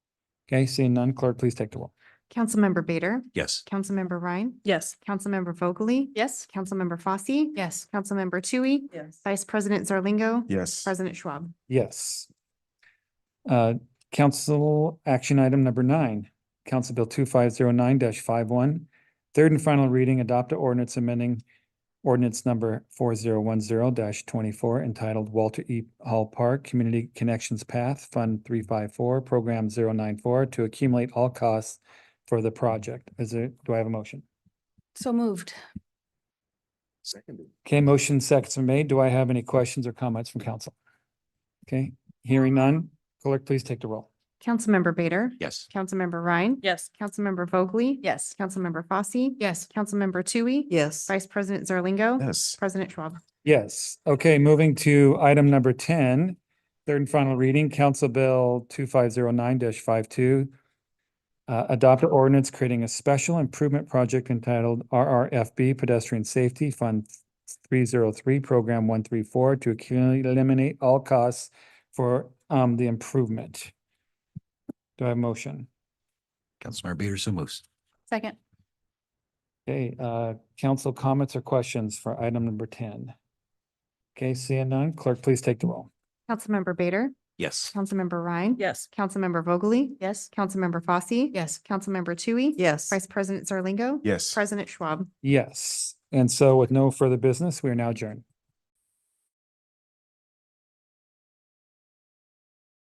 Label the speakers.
Speaker 1: Okay, seeing none, clerk, please take the roll.
Speaker 2: Councilmember Bader,
Speaker 3: Yes.
Speaker 2: Councilmember Ryan,
Speaker 4: Yes.
Speaker 2: Councilmember Vogely,
Speaker 4: Yes.
Speaker 2: Councilmember Fosse,
Speaker 4: Yes.
Speaker 2: Councilmember Tui,
Speaker 4: Yes.
Speaker 2: Vice President Zarlingo,
Speaker 3: Yes.
Speaker 2: President Schwab.
Speaker 1: Yes. Uh, Council action item number nine, Council Bill two five zero nine 51 Third and final reading, adopt a ordinance amending ordinance number four zero one zero twenty-four entitled Walter E. Hall Park Community Connections Path Fund three five four, Program 094 to accumulate all costs for the project. Is there, do I have a motion?
Speaker 4: So moved.
Speaker 3: Seconded.
Speaker 1: Okay, motion seconds are made. Do I have any questions or comments from council? Okay, hearing none, clerk, please take the roll.
Speaker 2: Councilmember Bader,
Speaker 3: Yes.
Speaker 2: Councilmember Ryan,
Speaker 4: Yes.
Speaker 2: Councilmember Vogely,
Speaker 4: Yes.
Speaker 2: Councilmember Fosse,
Speaker 4: Yes.
Speaker 2: Councilmember Tui,
Speaker 4: Yes.
Speaker 2: Vice President Zarlingo,
Speaker 3: Yes.
Speaker 2: President Schwab.
Speaker 1: Yes, okay, moving to item number ten, third and final reading, Council Bill two five zero nine 52 Uh, adopt an ordinance creating a special improvement project entitled RRFB Pedestrian Safety Fund three zero three, Program one three four to accumulate, eliminate all costs for, um, the improvement. Do I have a motion?
Speaker 3: Councilmember Bader so moves.
Speaker 4: Second.
Speaker 1: Okay, uh, council comments or questions for item number ten? Okay, seeing none, clerk, please take the roll.
Speaker 2: Councilmember Bader,
Speaker 3: Yes.
Speaker 2: Councilmember Ryan,
Speaker 4: Yes.
Speaker 2: Councilmember Vogely,
Speaker 4: Yes.
Speaker 2: Councilmember Fosse,
Speaker 4: Yes.
Speaker 2: Councilmember Tui,
Speaker 4: Yes.
Speaker 2: Vice President Zarlingo,
Speaker 3: Yes.
Speaker 2: President Schwab.
Speaker 1: Yes, and so with no further business, we are now adjourned.